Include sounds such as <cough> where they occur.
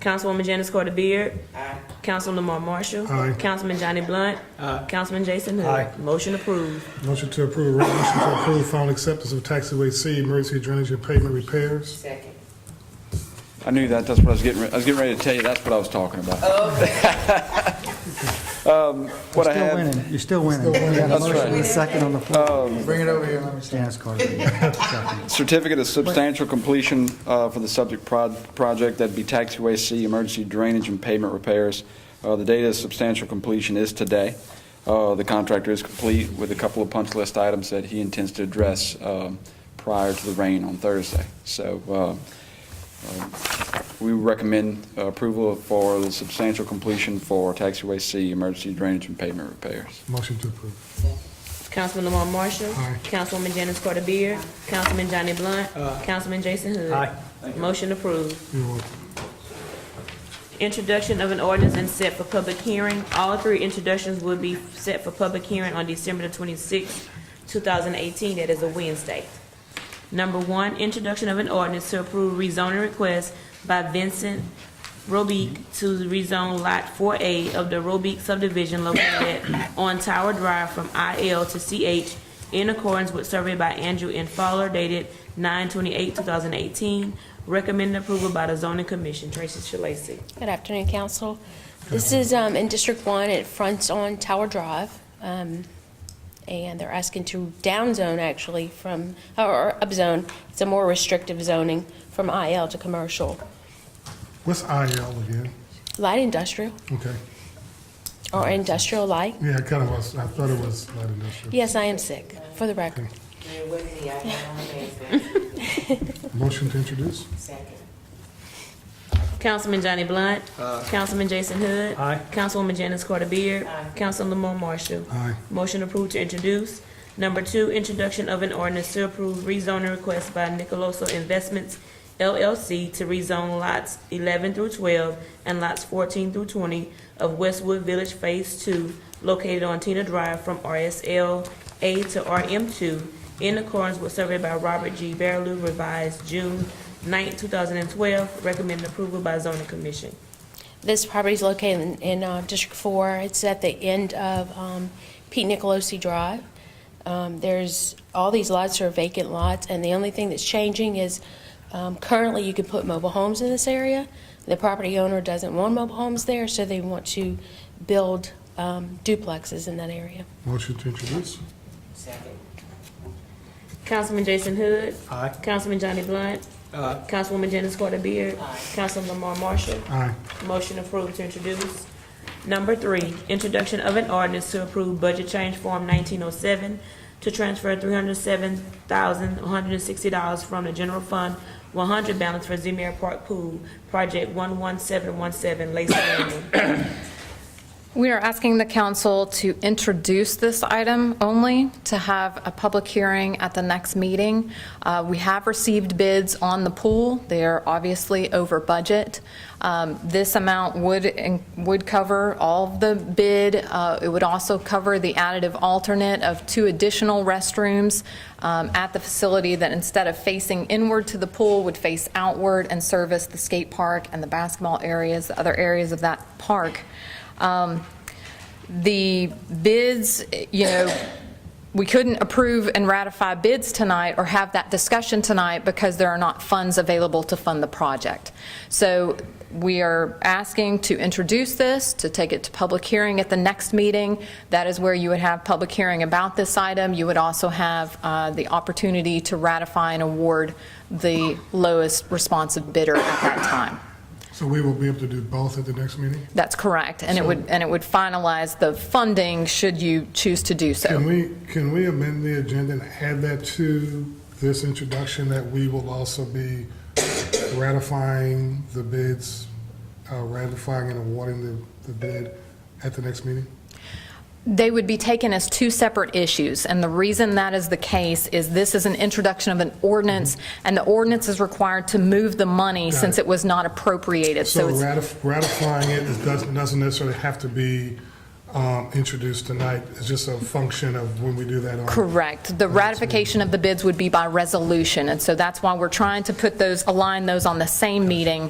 Councilwoman Janice Carter Beard. Aye. Councilman Lamar Marshall. Aye. Councilman Johnny Blunt. Councilman Jason Hood. Aye. Motion approved. Motion to approve, a resolution to approve final acceptance of taxiway C emergency drainage and pavement repairs. Second. I knew that, that's what I was getting, re- I was getting ready to tell you, that's what I was talking about. Um, What I Still have, winning. You're still winning. We got a That's motion right. Um, and a second on the floor. Bring it over here, let me see. Janice <laughs> Carter. Second. certificate of substantial completion uh, for the subject prod- project, that'd be taxiway C, emergency drainage and pavement repairs. Uh, The date of substantial completion is today. Uh, The contractor is complete with a couple of punch list items that he intends to address um, prior to the rain on Thursday. So uh, um, we recommend approval for the substantial completion for taxiway C, emergency drainage and pavement repairs. Motion to approve. Councilman Lamar Marshall. Aye. Councilwoman Janice Carter Beard. Councilman Johnny Blunt. Councilman Jason Hood. Aye. Motion approved. You're welcome. Introduction of an ordinance and set for public hearing. All three introductions will be set for public hearing on December the twenty-sixth, two thousand eighteen, that is a Wednesday. Number one, introduction of an ordinance to approve rezoning request by Vincent Robic to rezone Lot four A of the Robic subdivision located on Tower Drive from IL to CH in accordance with survey by Andrew N. Fowler dated nine twenty-eight, two thousand eighteen. Recommended approval by the zoning commission. Tracy Shalacy. Good afternoon, council. This is um, in District 1, it fronts on Tower Drive, um, and they're asking to downzone actually from, or upzone, it's a more restrictive zoning from IL to commercial, What's IL again? light industrial Okay. or industrial light. Yeah, I kind of was, I thought it was light industrial. Yes, I am sick, for the record. Man, what is he out there on the back? Motion to introduce. Second. Councilman Johnny Blunt. Councilman Jason Hood. Aye. Councilwoman Janice Carter Beard. Councilman Lamar Marshall. Aye. Motion approved to introduce. Number two, introduction of an ordinance to approve rezoning request by Nicoloso Investments LLC to rezone lots eleven through twelve and lots fourteen through twenty of Westwood Village Phase Two located on Tina Drive from RSL A to RM two in accordance with survey by Robert G. Barrew revised June 9, thousand and twelve, recommended approval by zoning commission. This property is located in- in uh, District 4. It's at the end of um, Pete Nicolosi Drive. Um, There's, all these lots are vacant lots, and the only thing that's changing is um, currently you can put mobile homes in this area. The property owner doesn't want mobile homes there, so they want to build um, duplexes in that area. Motion to introduce. Second. Councilman Jason Hood. Aye. Councilman Johnny Blunt. Councilwoman Janice Carter Beard. Councilman Lamar Marshall. Aye. Motion approved to introduce. Number three, introduction of an ordinance to approve budget change form nineteen oh seven to transfer three hundred seven thousand, one hundred and sixty dollars from the general fund one hundred balance for Zemire Park Pool, project one one seven one seven, Lacey Landing. We are asking the council to introduce this item only, to have a public hearing at the next meeting. Uh, We have received bids on the pool. They are obviously over budget. Um, This amount would, would cover all of the bid. Uh, It would also cover the additive alternate of two additional restrooms um, at the facility that instead of facing inward to the pool, would face outward and service the skate park and the basketball areas, the other areas of that park. Um, The bids, you know, we couldn't approve and ratify bids tonight or have that discussion tonight because there are not funds available to fund the project. So we are asking to introduce this, to take it to public hearing at the next meeting. That is where you would have public hearing about this item. You would also have uh, the opportunity to ratify and award the lowest responsive bidder at that time. So we will be able to do both at the next meeting? That's correct, and it would, and it would finalize the funding should you choose to Can do so. we, can we amend the agenda and add that to this introduction that we will also be ratifying the bids, uh, ratifying and awarding the, the bid at the next meeting? They would be taken as two separate issues, and the reason that is the case is this is an introduction of an ordinance, and the ordinance is required to move the money Mm-hmm. Got since it. it was not appropriated, so So it's, ratif- ratifying it is- doesn't doesn't necessarily have to be um, introduced tonight. It's just a function of when we do that on. correct. The ratification of the bids would be by resolution, and so that's why we're trying to put those, align those on the same meeting